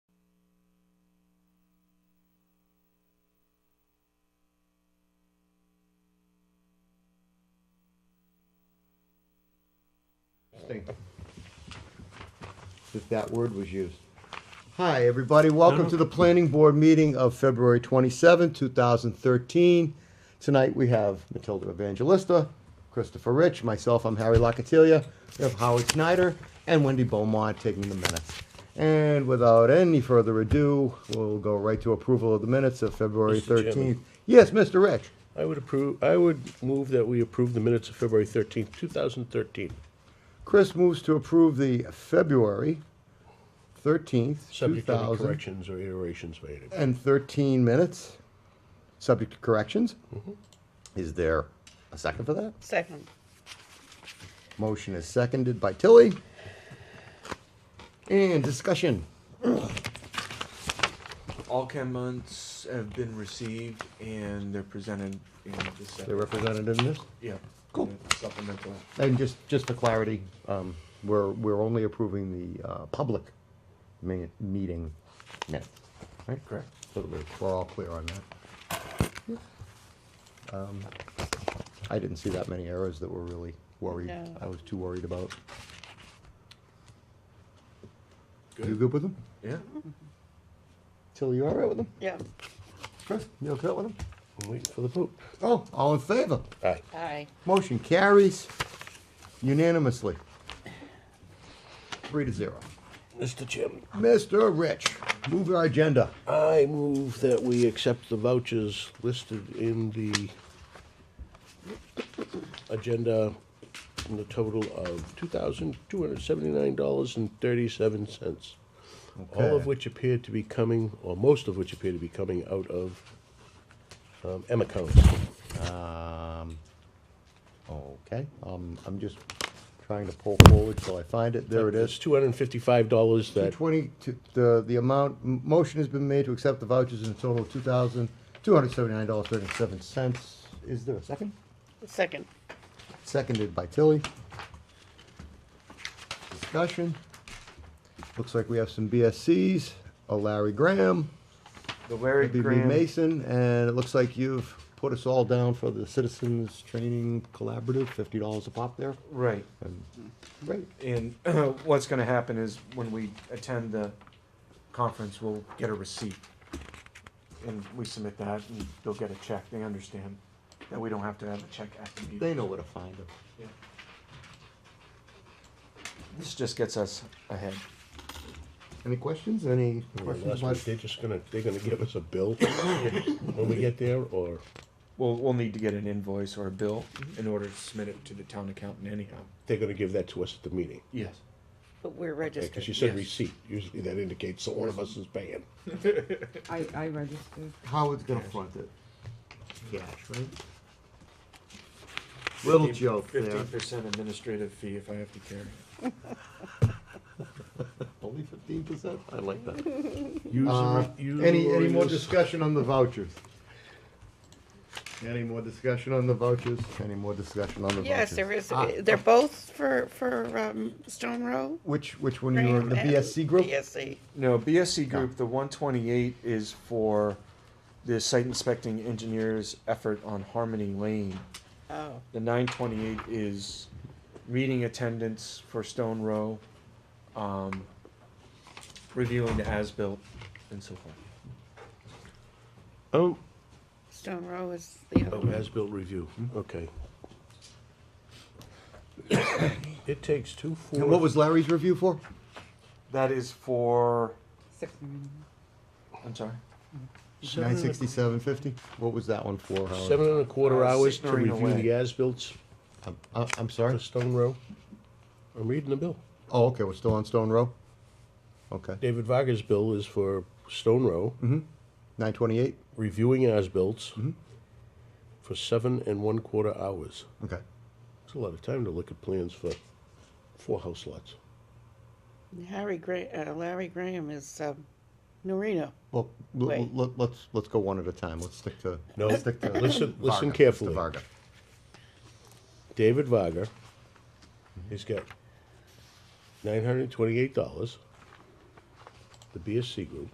testing. If that word was used. Hi, everybody. Welcome to the planning board meeting of February 27, 2013. Tonight we have Matilda Evangelista, Christopher Rich, myself, I'm Harry Locatilia. We have Howard Snyder and Wendy Beaumont taking the minutes. And without any further ado, we'll go right to approval of the minutes of February Mr. Chairman. 13th. Yes, Mr. Rich. I would approve, I would move that we approve the minutes of February thirteenth, two thousand thirteen, Chris moves to approve the February thirteenth, two subject to any thousand corrections or iterations made. and thirteen minutes, subject to corrections. Is there a second for that? Second. Motion is seconded by Tilly. And discussion. All chem months have been received and they're presented in the sep- They represented in this. yeah. Cool. in the Supplemental. And just, just for clarity, um, we're, we're only approving the, uh, public mi- meeting minutes. Right, correct. So that we're, we're all clear on that. Um, I didn't see that many errors that were really worried. No. I was too worried about. You Good. good with them? Yeah. Tilly, you all right with them? Yeah. Chris, you okay with them? I'm waiting for the vote. Oh, all in favor? Aye. Aye. Motion carries unanimously. Three to zero. Mr. Chairman, Mr. Rich, move our agenda. I move that we accept the vouchers listed in the agenda in the total of two thousand two hundred seventy-nine dollars and thirty-seven cents. All Okay. of which appear to be coming, or most of which appear to be coming out of, um, M accounts. Um, okay, um, I'm just trying to pull forward till I find it. There it It's is. two hundred and fifty-five dollars Two that twenty, the, the amount, m- motion has been made to accept the vouchers in total of two thousand, two hundred seventy-nine dollars, thirty-seven cents. Is there a second? Second. Seconded by Tilly. Discussion. Looks like we have some BSCs, a Uh, Larry Graham, The Larry BB Graham. Mason, and it looks like you've put us all down for the Citizens Training Collaborative, fifty dollars a pop there. Right. And- Great. And what's gonna happen is when we attend the conference, we'll get a receipt. And we submit that and they'll get a check. They understand that we don't have to have a check at the They meeting. know where to find them. Yeah. This just gets us ahead. Any questions? Any questions? Unless we- about- They're just gonna, they're gonna give us a bill when we get there, or, We'll, we'll need to get an invoice or a bill in order to submit it to the town accountant anyhow. they're gonna give that to us at the meeting. Yes. But we're Because you registered. said Yes. receipt, usually that indicates that one of us is paying. I, I registered. Howard's gonna front it. Cash, right? Little joke there. Fifteen percent administrative fee if I have to carry. Only fifteen percent? I like that. Use the Uh, re- use the Any, any more lawyers. discussion on the vouchers? Any more discussion on the vouchers? Any more discussion on the vouchers? Yes, there is, Ah, they're both for, for, um, Stone Row. Which, which one you were, in the Graham and BSC group? BSC. No, BSC group, the one twenty-eight is for the site inspecting engineer's effort on Harmony Lane. Oh, The nine twenty-eight is meeting attendance for Stone Row, um, reviewing the as-built and so forth. Oh, Stone Row is the other oh, one. as-built review, okay. It takes two, four. And what was Larry's review for? That is for, Six million. I'm sorry, seven Nine and a- sixty-seven fifty? What was that one for, Howard? Seven and a quarter Uh, hours to signering review away. the as-bills I'm, I- Uh, I'm for sorry? Stone Row. I'm reading the bill. Oh, okay, we're still on Stone Row? Okay. David Varga's bill is for Stone Row. Nine twenty-eight? reviewing as-bills for seven and one-quarter hours. Okay. It's a lot of time to look at plans for four house lots. Harry Gra, uh, Larry Graham is, um, Norino. Well, l- l- Wait. let- let's, let's go one at a time. Let's stick to. No, let's stick to listen- listen Varga, Mr. carefully. Varga. David Varga, he's got nine hundred and twenty-eight dollars, the BSC group,